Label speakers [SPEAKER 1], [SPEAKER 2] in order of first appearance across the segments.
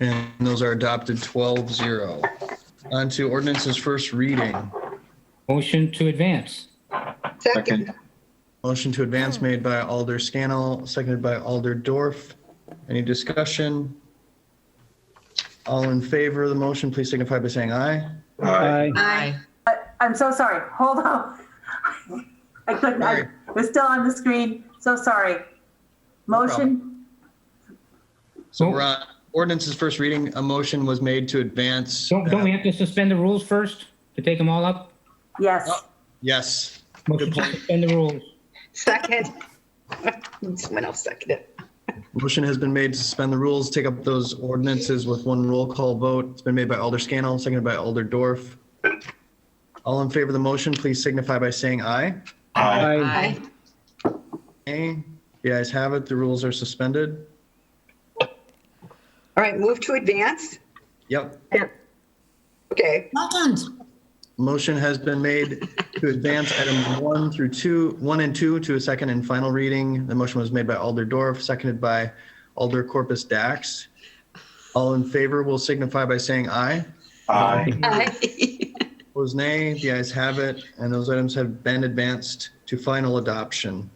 [SPEAKER 1] And those are adopted 12-0. On to ordinances first reading.
[SPEAKER 2] Motion to advance.
[SPEAKER 3] Second.
[SPEAKER 1] Motion to advance made by Alder Scannell, seconded by Alder Dorf. Any discussion? All in favor of the motion, please signify by saying aye.
[SPEAKER 3] Aye.
[SPEAKER 4] Aye.
[SPEAKER 5] I'm so sorry. Hold on. I couldn't, I was still on the screen. So sorry. Motion,
[SPEAKER 1] So we're on ordinances first reading. A motion was made to advance. Uh,
[SPEAKER 2] Don't, don't we have to suspend the rules first to take them all up?
[SPEAKER 5] yes.
[SPEAKER 1] Yes.
[SPEAKER 2] Motion to suspend the rules.
[SPEAKER 3] Second. Someone else seconded. it.
[SPEAKER 1] Motion has been made to suspend the rules, take up those ordinances with one roll call vote. It's been made by Alder Scannell, seconded by Alder Dorf. All in favor of the motion, please signify by saying aye.
[SPEAKER 4] Aye.
[SPEAKER 1] Aye. The ayes have it. The rules are suspended.
[SPEAKER 3] All right, move to advance.
[SPEAKER 1] Yep.
[SPEAKER 3] Okay,
[SPEAKER 4] Second.
[SPEAKER 1] Motion has been made to advance items one through two, one and two to a second and final reading. The motion was made by Alder Dorf, seconded by Alder Corpus Dax. All in favor will signify by saying aye.
[SPEAKER 6] Aye.
[SPEAKER 3] aye.
[SPEAKER 1] Opposed, nay. The ayes have it, and those items have been advanced to final adoption.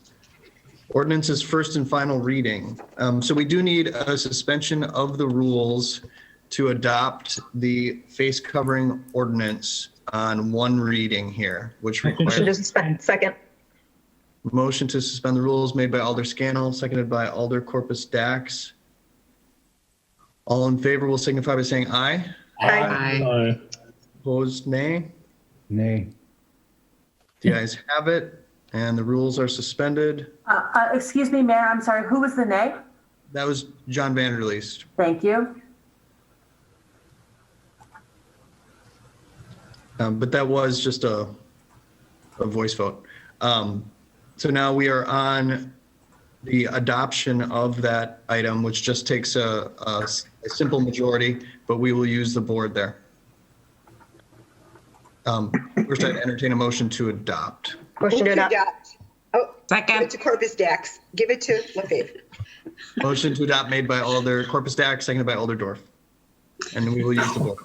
[SPEAKER 1] Ordinance is first and final reading. Um, so we do need a suspension of the rules to adopt the face covering ordinance on one reading here, which requires
[SPEAKER 3] Just a second.
[SPEAKER 1] motion to suspend the rules made by Alder Scannell, seconded by Alder Corpus Dax. All in favor will signify by saying aye.
[SPEAKER 3] Aye.
[SPEAKER 4] Aye.
[SPEAKER 6] Aye.
[SPEAKER 1] Opposed, nay.
[SPEAKER 6] Nay.
[SPEAKER 1] The ayes have it, and the rules are suspended.
[SPEAKER 5] Uh, uh, excuse me, Mayor, I'm sorry. Who was the nay?
[SPEAKER 1] That was John Vanderleest.
[SPEAKER 5] Thank you.
[SPEAKER 1] Um, but that was just a, a voice vote. Um, so now we are on the adoption of that item, which just takes a, a s- a simple majority, but we will use the board there. Um, first, I entertain a motion to adopt.
[SPEAKER 3] Motion to adopt. Oh, give it
[SPEAKER 4] Second.
[SPEAKER 3] to Corpus Dax. Give it to LaFave.
[SPEAKER 1] Motion to adopt made by Alder Corpus Dax, seconded by Alder Dorf. And we will use the board.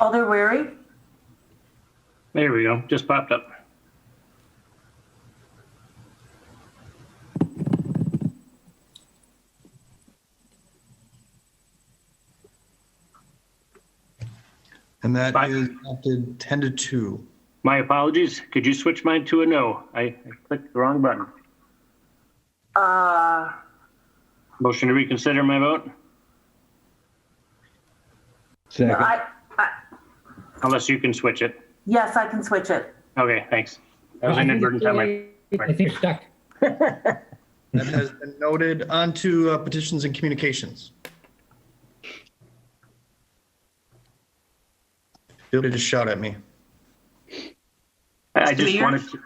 [SPEAKER 5] Alder Oh, Weary,
[SPEAKER 7] There we go. Just popped up.
[SPEAKER 1] And that
[SPEAKER 7] Bye.
[SPEAKER 1] is adopted 10 to 2.
[SPEAKER 7] My apologies. Could you switch mine to a no? I I clicked the wrong button.
[SPEAKER 5] uh,
[SPEAKER 7] Motion to reconsider my vote,
[SPEAKER 6] Second.
[SPEAKER 5] I, I,
[SPEAKER 7] unless you can switch it.
[SPEAKER 5] yes, I can switch it.
[SPEAKER 7] Okay, thanks. That was
[SPEAKER 2] I think-
[SPEAKER 7] inadvertent on my.
[SPEAKER 2] I think you're stuck.
[SPEAKER 1] That has been noted. On to uh, petitions and communications. Feel free to shout at me.
[SPEAKER 7] I
[SPEAKER 4] Mr.
[SPEAKER 7] just
[SPEAKER 4] Mayor?
[SPEAKER 7] wanted to.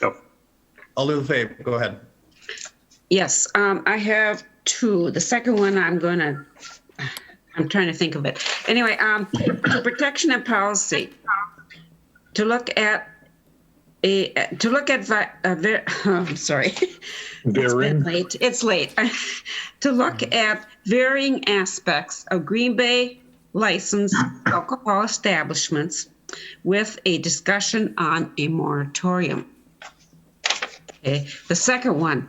[SPEAKER 7] Go.
[SPEAKER 1] Alder LaFave, go ahead.
[SPEAKER 4] Yes, um, I have two. The second one, I'm gonna, I'm trying to think of it. Anyway, um, to protection and policy, to look at a, to look at, vi- a ver- oh, I'm sorry. It's been late. It's late. to look at varying aspects of Green Bay licensed alcohol establishments with a discussion on a moratorium. Okay. The second one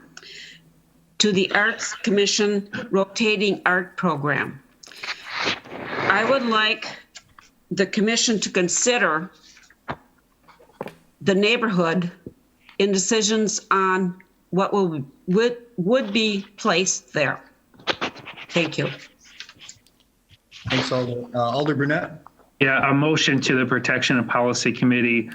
[SPEAKER 4] to the Arts Commission rotating art program. I would like the commission to consider the neighborhood in decisions on what will, would, would be placed there. Thank you.
[SPEAKER 1] Thanks, Alder. Uh, Alder Brunette?
[SPEAKER 8] Yeah, a motion to the Protection and Policy Committee